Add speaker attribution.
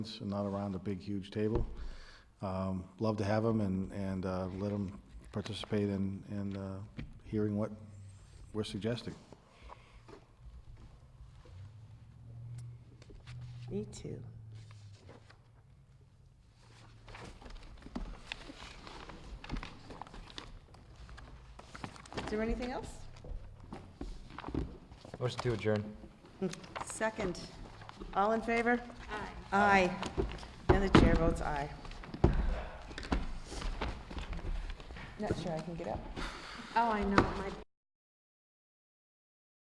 Speaker 1: and not around a big, huge table. Um, Love to have them and, and uh, let them participate in, in uh, hearing what we're suggesting.
Speaker 2: Me too. Is there anything else?
Speaker 3: Motion to adjourn.
Speaker 2: Second. All in favor? Aye. Aye. And the chair votes aye. Not sure I can get up.
Speaker 4: Oh, I know, my